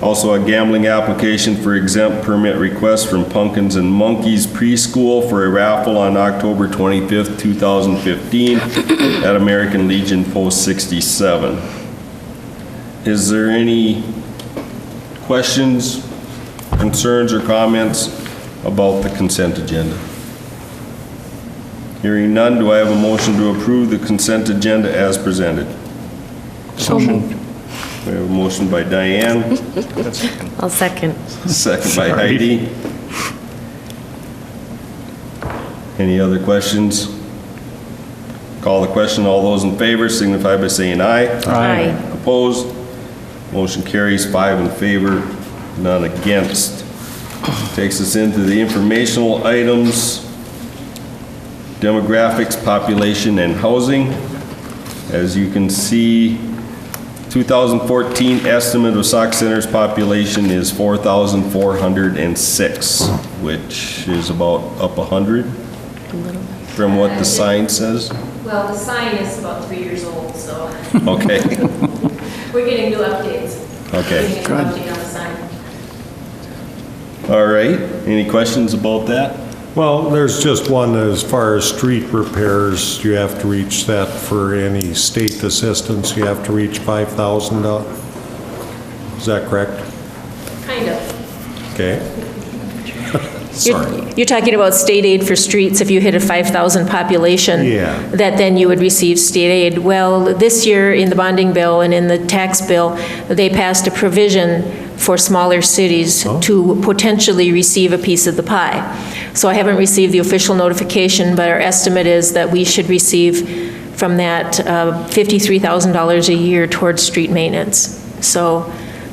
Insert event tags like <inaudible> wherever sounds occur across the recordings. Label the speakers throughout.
Speaker 1: Also, a gambling application for exempt permit request from Pumpkins and Monkeys Preschool for a raffle on October 25th, 2015 at American Legion Post 67. Is there any questions, concerns, or comments about the consent agenda? Hearing none, do I have a motion to approve the consent agenda as presented?
Speaker 2: So moved.
Speaker 1: We have a motion by Diane,
Speaker 3: I'll second.
Speaker 1: second by
Speaker 2: Sorry.
Speaker 1: Heidi. Any other questions? Call the question. All those in favor signify by saying aye.
Speaker 3: Aye.
Speaker 1: Opposed? Motion carries five in favor, none against. Takes us into the informational items, demographics, population, and housing. As you can see, 2014 estimate of Sox Center's population is 4,406, which is about up 100 from what the sign says.
Speaker 4: Well, the sign is about three years old, so
Speaker 1: Okay.
Speaker 4: we're getting new updates. We're
Speaker 1: Okay.
Speaker 4: getting an update on the sign.
Speaker 1: All right, any questions about that?
Speaker 5: Well, there's just one, as far as street repairs, you have to reach that for any state assistance, you have to reach 5,000. doll- Is that correct?
Speaker 4: Kind of.
Speaker 5: Okay.
Speaker 6: You're-
Speaker 5: Sorry.
Speaker 6: You're talking about state aid for streets if you hit a 5,000 population?
Speaker 5: Yeah.
Speaker 6: That then you would receive state aid. Well, this year in the bonding bill and in the tax bill, they passed a provision for smaller cities
Speaker 5: Oh.
Speaker 6: to potentially receive a piece of the pie. So I haven't received the official notification, but our estimate is that we should receive from that uh, $53,000 a year towards street maintenance. So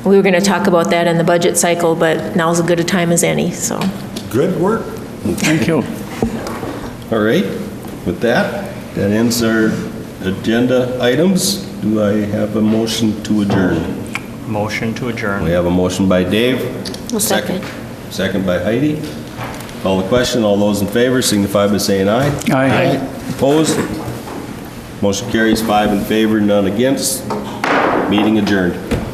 Speaker 6: we were going to talk about that in the budget cycle, but now's as good a time as any, so.
Speaker 5: Good work.
Speaker 2: Thank you.
Speaker 1: <laughs> All right, with that, that ends our agenda items. Do I have a motion to adjourn?
Speaker 2: Motion to adjourn.
Speaker 1: We have a motion by Dave.
Speaker 6: second.
Speaker 1: Second by Heidi. Call the question, all those in favor signify by saying aye.
Speaker 2: Aye. Aye.
Speaker 1: Opposed? Motion carries five in favor, none against. Meeting adjourned.